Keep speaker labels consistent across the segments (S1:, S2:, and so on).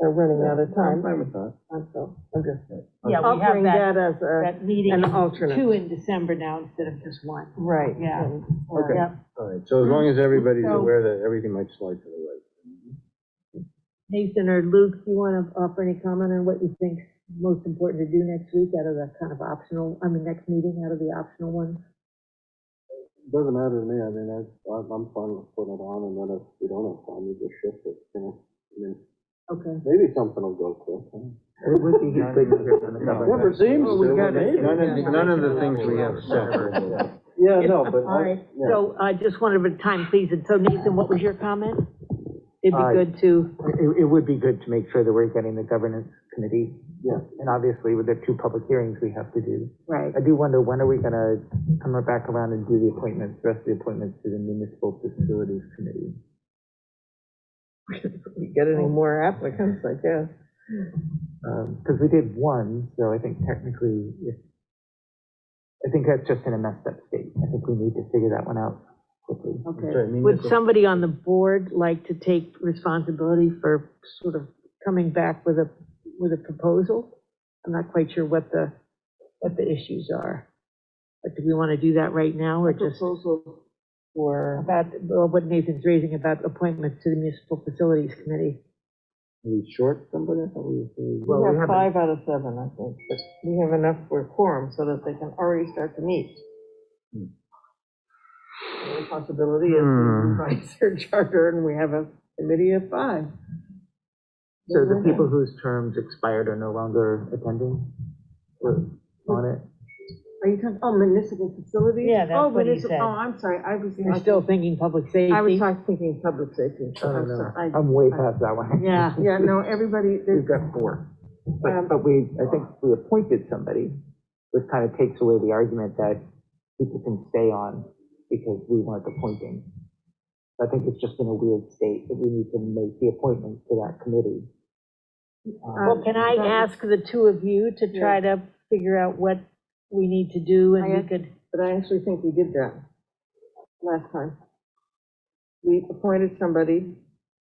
S1: they're running out of
S2: I'm
S1: time,
S2: fine with that.
S1: I'm so, I'm just
S3: Yeah, we have
S1: offering
S3: that,
S1: that as a,
S3: that meeting,
S1: an alternate.
S3: two in December now instead of just one.
S1: right.
S3: Yeah.
S1: and-
S2: Okay,
S3: Yep.
S2: all right, so as long as everybody's
S3: So-
S2: aware that everything might slide to the right.
S4: Nathan or Luke, do you want to offer any comment on what you think most important to do next week out of the kind of optional, I mean, next meeting out of the optional ones?
S2: Doesn't matter to me, I mean, I, I'm I'm fine with putting it on, and then if we don't have time, we just shift it, you know? I mean,
S4: Okay.
S2: maybe something will go quick.
S5: Never
S2: seems
S1: Well, we
S2: to,
S1: gotta-
S2: maybe.
S5: None of, the- none of the things we have
S2: Yeah.
S5: separate.
S2: Yeah, no, but
S4: All
S2: I,
S4: right,
S2: yeah.
S4: so I just wanted a time, please, and so Nathan, what was your comment? It'd
S6: Uh,
S4: be good to,
S6: It, it would be good to make sure that we're getting the governance committee,
S2: yeah.
S6: and obviously with the two public hearings we have to do.
S4: right,
S6: I do wonder, when are we gonna come right back around and do the appointments, the rest of the appointments to the municipal facilities committee?
S1: We Get any more applicants, I guess.
S6: Um 'cause cause we did one, so I think technically, if, I think that's just in a messed up state. I think we need to figure that one out quickly.
S4: okay. Would somebody on the board like to take responsibility for sort of coming back with a, with a proposal? I'm not quite sure what the, what the issues are. But do we want to do that right now, or just?
S1: Proposal for,
S4: about, well, what Nathan's raising about appointments to the municipal facilities committee.
S2: We short somebody, I thought we were.
S1: we
S6: Well, we
S1: have
S6: haven't,
S1: five out of seven, I think, but we have enough for quorum so that they can already start to meet. The only possibility is we
S6: Hmm.
S1: revise their charter and we have a committee of five.
S6: so the people whose terms expired are no longer attending, or on it?
S1: Are you talking, oh, municipal facilities?
S3: Yeah, that's
S1: Oh,
S3: what he
S1: municip-
S3: said.
S1: Oh, I'm sorry, I was.
S4: You're still thinking public safety?
S1: I was talking, thinking public safety.
S6: I don't
S1: I'm
S6: know.
S1: sorry. Oh, I-
S6: I'm way past that one.
S4: Yeah,
S1: Yeah, no, everybody,
S6: We've
S1: there's,
S6: got four.
S1: Um,
S6: But, but we, I think we appointed somebody, which kind of takes away the argument that people can stay on because we weren't appointing. I think it's just in a weird state that we need to make the appointment to that committee.
S4: well,
S6: Um,
S4: can I ask the two of you to try to figure out what we need to do, and we could,
S1: but I actually think we did that last time. We appointed somebody,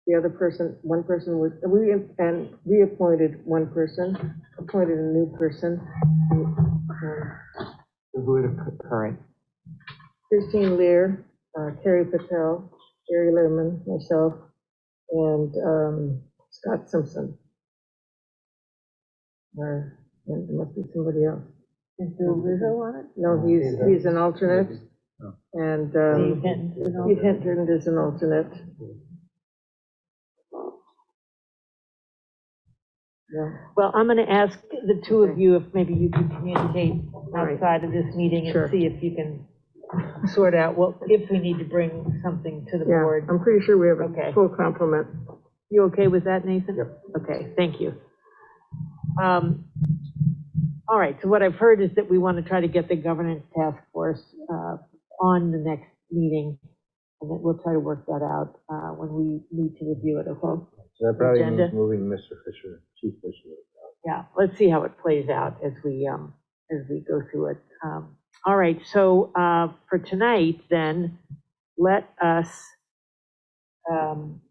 S1: the other person, one person was, we, and reappointed one person, appointed a new person.
S6: Who are the current?
S1: Christine Lear, uh, Carrie Patel, Jerry Lerman, myself, and um, Scott Simpson. Or, and there must be somebody else.
S4: is Bill Rizzo on it?
S1: No, he's, he's an alternate, and um,
S4: Dave Hinton, you know?
S1: Pete Hinton is an alternate. Yeah.
S4: Well, I'm gonna ask the two of you if maybe you could communicate outside of this meeting
S1: Sure.
S4: and see if you can sort out what, if we need to bring something to the
S1: Yeah,
S4: board.
S1: I'm pretty sure we have a
S4: Okay.
S1: full complement.
S4: Um, You okay with that, Nathan? Yep. Okay, thank you. Um, All right, so what I've heard is that we want to try to get the governance task force uh, on the next meeting, and that we'll try to work that out uh, when we need to review it, okay?
S2: So that probably means
S4: Agenda.
S2: moving Mr. Fisher, Chief Fisher.
S4: Yeah, let's see how it plays out as we, um, as we go through it. Um, All right, so uh, for tonight, then, let us, um,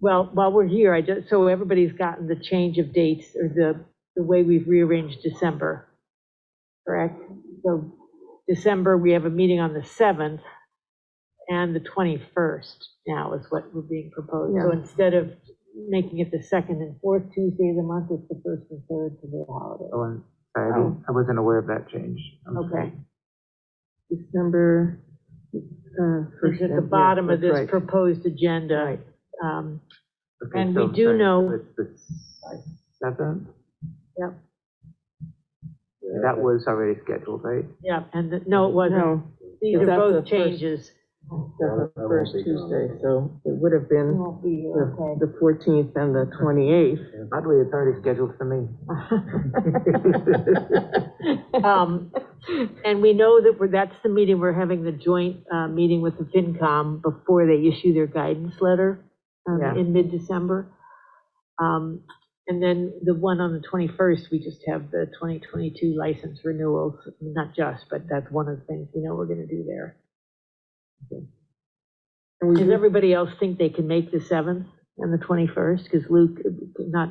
S4: well, while we're here, I just, so everybody's gotten the change of dates or the, the way we've rearranged December, correct? So December, we have a meeting on the 7th and the 21st now is what we're being proposed. So
S1: Yeah.
S4: instead of making it the second and fourth Tuesday of the month, it's the first and third to the holiday.
S6: Oh, I'm sorry, I didn't- I wasn't aware of that change. I'm sorry.
S4: Okay,
S1: December, uh, first.
S4: it's at
S1: and-
S4: the
S1: yeah,
S4: bottom of
S1: that's
S4: this
S1: right.
S4: proposed agenda. Um,
S6: Okay,
S4: And we
S6: so-
S4: do
S6: sorry, so
S4: know-
S6: It's the seventh?
S4: Yep.
S6: That was already scheduled, right?
S4: Yeah, and, the- no, it wasn't.
S1: No,
S4: These are
S1: That's
S4: both
S1: the first-
S4: changes.
S1: that's the
S2: I won't
S1: first
S2: be gone.
S1: Tuesday, so it would have been
S4: Won't be here,
S1: the
S4: okay.
S1: the 14th and the 28th.
S6: Oddly, it's already scheduled for me.
S4: Um, And we know that we're, that's the meeting, we're having the joint uh, meeting with the FinCom before they issue their guidance letter um,
S1: Yeah.
S4: in mid-December. Um, And then the one on the 21st, we just have the 2022 license renewals, not just, but that's one of the things we know we're going to do there.
S1: And we
S4: Does everybody else think they can make the 7th and the 21st? Because Luke, not